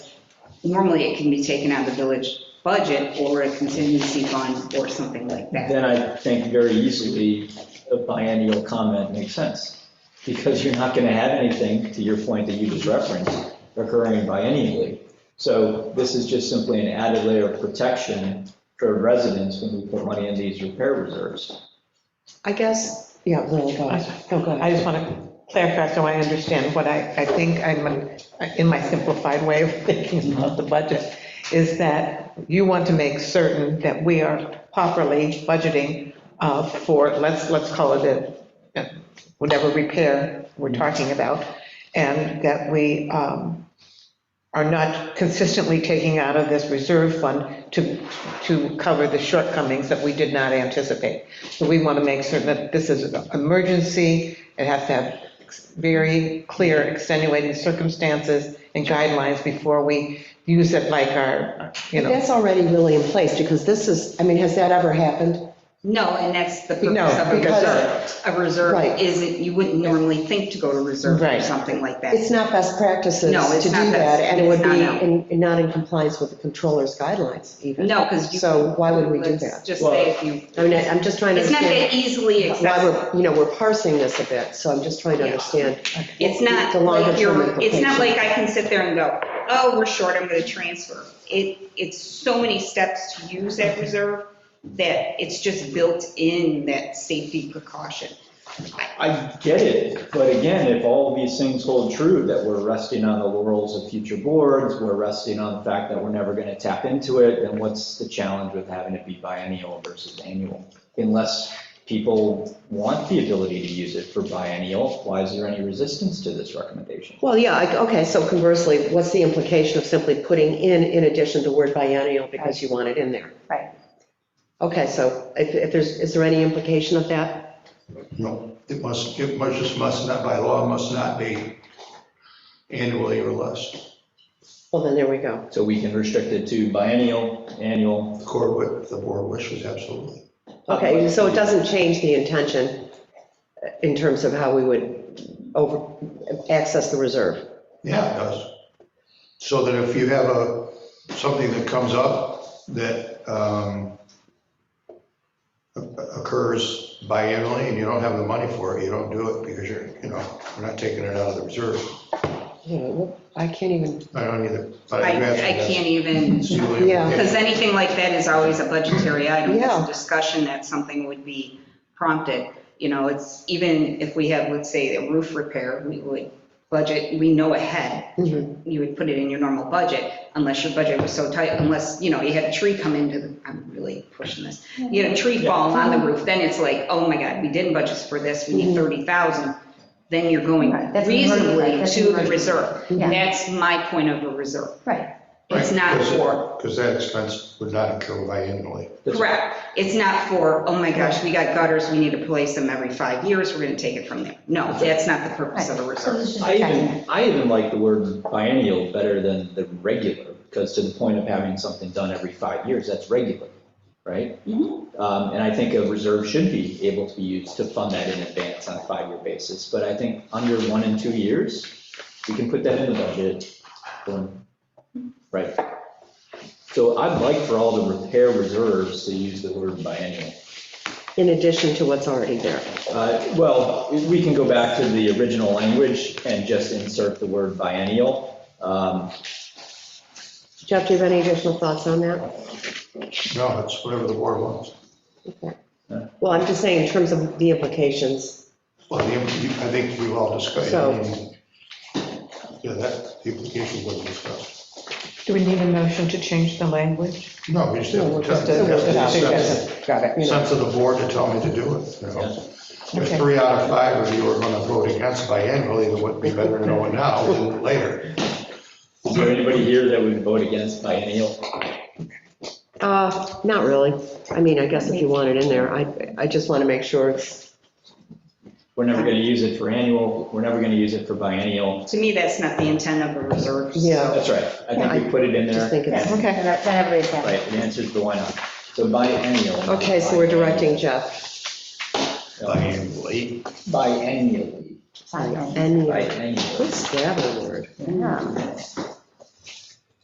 normally it can be taken out of the village budget or a contingency fund or something like that. Then I think very easily a biennial comment makes sense. Because you're not going to have anything, to your point that you just referenced, occurring biennially. So this is just simply an added layer of protection for residents when we put money in these repair reserves. I guess, yeah, Lily, go ahead. No, go I ahead. just want to clarify so I understand what I, I think I'm, in my simplified way of thinking about the budget, is that you want to make certain that we are properly budgeting uh, for, let's, let's call it a, uh, whatever repair we're talking about, and that we um, are not consistently taking out of this reserve fund to, to cover the shortcomings that we did not anticipate. So we want to make certain that this is an emergency, it has to have very clear extenuating circumstances and guidelines before we use it like our, you know. That's already really in place, because this is, I mean, has that ever happened? No, and that's the No, purpose of a because- reserve. A reserve Right. isn't, you wouldn't normally think to go to reserve or Right. something like that. It's not best practices No, to it's do not best- that, and it would it's not, be no. in- in- not in compliance with the controller's guidelines even. No, because you. So why would we do Let's that? Just Well- say if you, I mean, I- I'm just trying to it's not that understand easily why accessible. we're, you know, we're parsing this a bit, so I'm just trying to Yeah. understand. It's not The longer like you're, term it's not implication. like I can sit there and go, oh, we're short, I'm gonna transfer. It, it's so many steps to use that reserve that it's just built in that safety precaution. I get it, but again, if all these things hold true, that we're resting on the laurels of future boards, we're resting on the fact that we're never going to tap into it, then what's the challenge with having it be biennial versus annual? Unless people want the ability to use it for biennial, why is there any resistance to this recommendation? Well, yeah, I- okay, so conversely, what's the implication of simply putting in, in addition, the word biennial because you want it in there? Right. Okay, so if, if there's, is there any implication of that? No, it must, it must, just must not, by law, must not be annually or less. Well, then there we go. So we can restrict it to biennial, annual. The court, would- the board wishes, absolutely. Okay, so it doesn't change the intention uh, in terms of how we would over, access the reserve. Yeah, it does. So that if you have a, something that comes up that um, occurs biannually and you don't have the money for it, you don't do it because you're, you know, we're not taking it out of the reserve. You know, I can't even, I don't either. but I, I'm asking I that. can't even, See what you- Yeah. because anything like that is always a budgetary item. It's Yeah. a discussion that something would be prompted. You know, it's, even if we have, let's say, a roof repair, we would budget, we know ahead Mhm. you would put it in your normal budget, unless your budget was so tight, unless, you know, you had a tree come into, the I'm really pushing this, you had a tree fall on the roof, then it's like, oh my God, we didn't budget for this, we need 30,000, then you're going Right, that's emergency, reasonably that's to the emergency. reserve. Yeah. That's my point of a reserve. Right, It's not for, Because that expense would not occur biannually. That's- correct, it's not for, oh my gosh, we got gutters, we need to place them every five years, we're gonna take it from there. No, that's not the right. purpose of a So reserve. it's just I checking even, it. I even like the word biennial better than the regular, because to the point of having something done every five years, that's regular, right? Mhm. Um, And I think a reserve should be able to be used to fund that in advance on a five-year basis. But I think under one and two years, we can put that in the budget. boom. Right. So I'd like for all the repair reserves to use the word biennial. in addition to what's already there. Uh, Well, we can go back to the original language and just insert the word biennial. Um, Jeff, do you have any additional thoughts on that? No, it's whatever the board wants. Well, I'm just saying in terms of the implications, Well, the- I think we've all discussed. So- Yeah, that, the application wasn't discussed. Do we need a motion to change the language? No, we just have to Just test to- the Got it. sense- sense of the board to tell me to do it, you know? If Okay. three out of five of you are going to vote against biannually, then it would be better to know it now than later. Is there anybody here that would vote against biennial? uh, not really. I mean, I guess if you want it in there, I, I just want to make sure it's, We're never going to use it for annual, we're never going to use it for biennial. To me, that's not the intent of a reserve. Yeah. That's right, I think we put it in just there, think it's, Okay. And that- Then everybody's happy. right, it answers the why not. So biennial. not okay, so we're biennial. directing Jeff. Biannually. Biennially, Something. And, biennial. what's that word? Yeah.